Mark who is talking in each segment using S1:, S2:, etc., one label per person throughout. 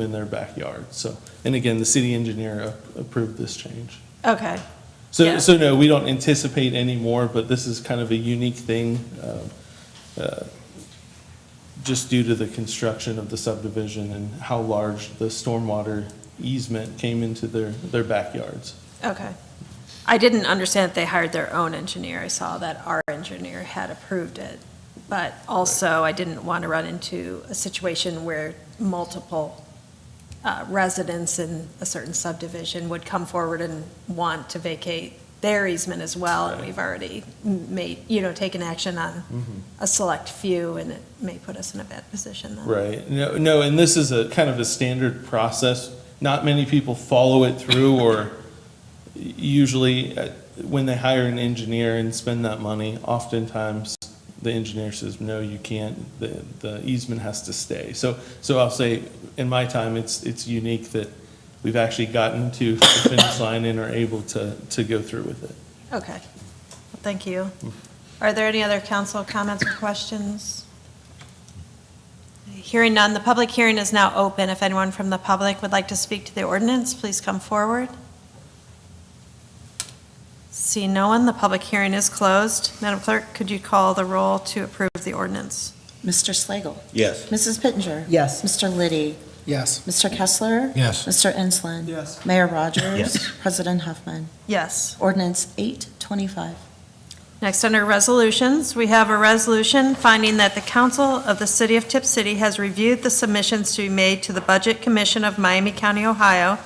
S1: in their backyard, so. And again, the city engineer a- approved this change.
S2: Okay,
S1: So,
S2: Yeah.
S1: so no, we don't anticipate any more, but this is kind of a unique thing, um, uh, just due to the construction of the subdivision and how large the stormwater easement came into their, their backyards.
S2: okay. I didn't understand that they hired their own engineer. I saw that our engineer had approved it. But also, I didn't want to run into a situation where multiple uh, residents in a certain subdivision would come forward and want to vacate their easement as well. And
S1: Right.
S2: we've already m- made, you know, taken action on a select few, and it may put us in a bad position then.
S1: Right. No, no, and this is a kind of a standard process. Not many people follow it through or usually uh, when they hire an engineer and spend that money, oftentimes the engineer says, no, you can't, the, the easement has to stay. So, so I'll say, in my time, it's, it's unique that we've actually gotten to the finish line and are able to, to go through with it.
S2: Okay, Well, thank you. Are there any other council comments or questions? Hearing none, the public hearing is now open. If anyone from the public would like to speak to the ordinance, please come forward. See no one, the public hearing is closed. Madam Clerk, could you call the roll to approve the ordinance?
S3: Mr. Slagle.
S4: Yes.
S3: Mrs. Pittenger.
S5: Yes.
S3: Mr. Liddy.
S5: Yes.
S3: Mr. Kessler.
S4: Yes.
S3: Mr. Ensland.
S5: Yes.
S3: Mayor Rogers.
S4: Yes.
S3: President Huffman.
S2: Yes.
S3: Ordinance 825.
S2: Next, under resolutions, we have a resolution finding that the council of the city of Tip City has reviewed the submissions to be made to the Budget Commission of Miami County, Ohio,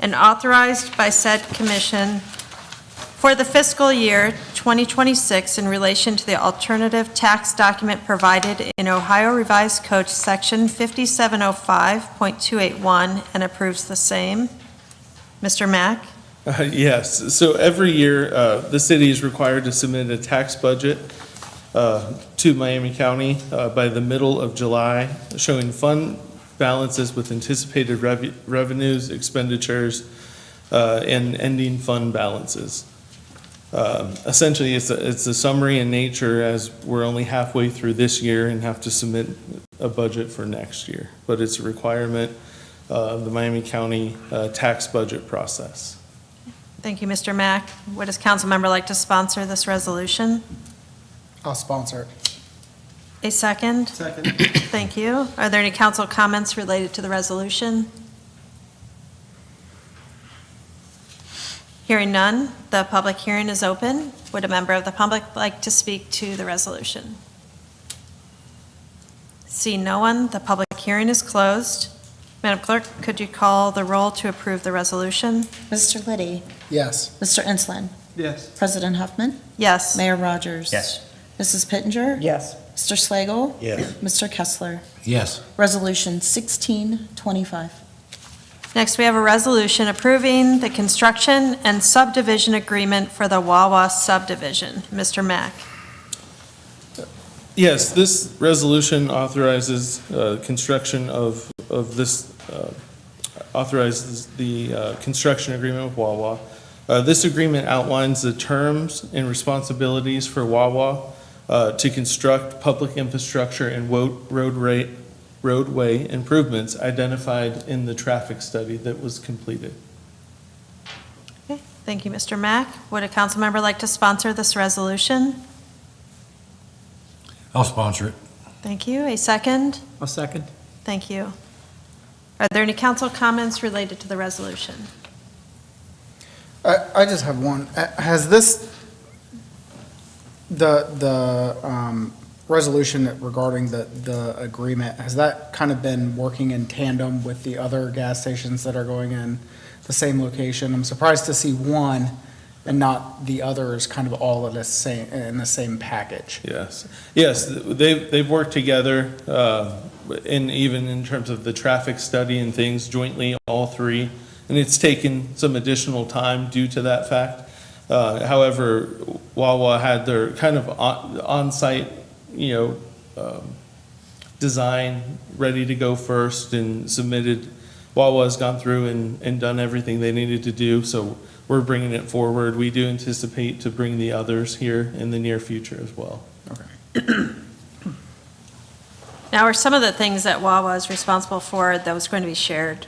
S2: and authorized by said commission for the fiscal year 2026 in relation to the alternative tax document provided in Ohio Revised Code Section 5705.281 and approves the same. Mr. Mack?
S1: Uh, Yes, so every year, uh, the city is required to submit a tax budget uh, to Miami County uh, by the middle of July, showing fund balances with anticipated rev- revenues, expenditures, uh, and ending fund balances. Um, Essentially, it's a it's a summary in nature, as we're only halfway through this year and have to submit a budget for next year. But it's a requirement uh, of the Miami County uh, tax budget process.
S2: Thank you, Mr. Mack. Would does council member like to sponsor this resolution?
S5: I'll sponsor it.
S2: A second? Second. Thank you. Are there any council comments related to the resolution? Hearing none, the public hearing is open. Would a member of the public like to speak to the resolution? See no one, the public hearing is closed. Madam Clerk, could you call the roll to approve the resolution?
S3: Mr. Liddy.
S5: Yes.
S3: Mr. Ensland.
S5: Yes.
S3: President Huffman.
S2: Yes.
S3: Mayor Rogers. Mrs. Pittenger.
S5: Yes.
S3: Mr. Slagle.
S4: Yes.
S3: Mr. Kessler.
S4: Yes.
S3: Resolution 1625.
S2: Next, we have a resolution approving the construction and subdivision agreement for the Wawa subdivision. Mr. Mack.
S1: Yes, this resolution authorizes uh, construction of, of this, uh, authorizes the uh, construction agreement with Wawa. Uh, This agreement outlines the terms and responsibilities for Wawa uh, to construct public infrastructure and wo- road rate, roadway improvements identified in the traffic study that was completed.
S2: Okay, Thank you, Mr. Mack. Would a council member like to sponsor this resolution?
S4: I'll sponsor it.
S2: Thank you. A second?
S5: A second?
S2: Thank you. Are there any council comments related to the resolution?
S6: I, I just have one. Uh, Has this, the, the um, resolution that regarding the, the agreement, has that kind of been working in tandem with the other gas stations that are going in the same location? I'm surprised to see one and not the others kind of all in the same, in the same package.
S1: Yes, yes, they've, they've worked together, uh, and even in terms of the traffic study and things jointly, all three. And it's taken some additional time due to that fact. Uh, However, Wawa had their kind of on- on-site, you know, um, design ready to go first and submitted. Wawa's gone through and, and done everything they needed to do, so we're bringing it forward. We do anticipate to bring the others here in the near future as well.
S2: Now, are some of the things that Wawa is responsible for that was going to be shared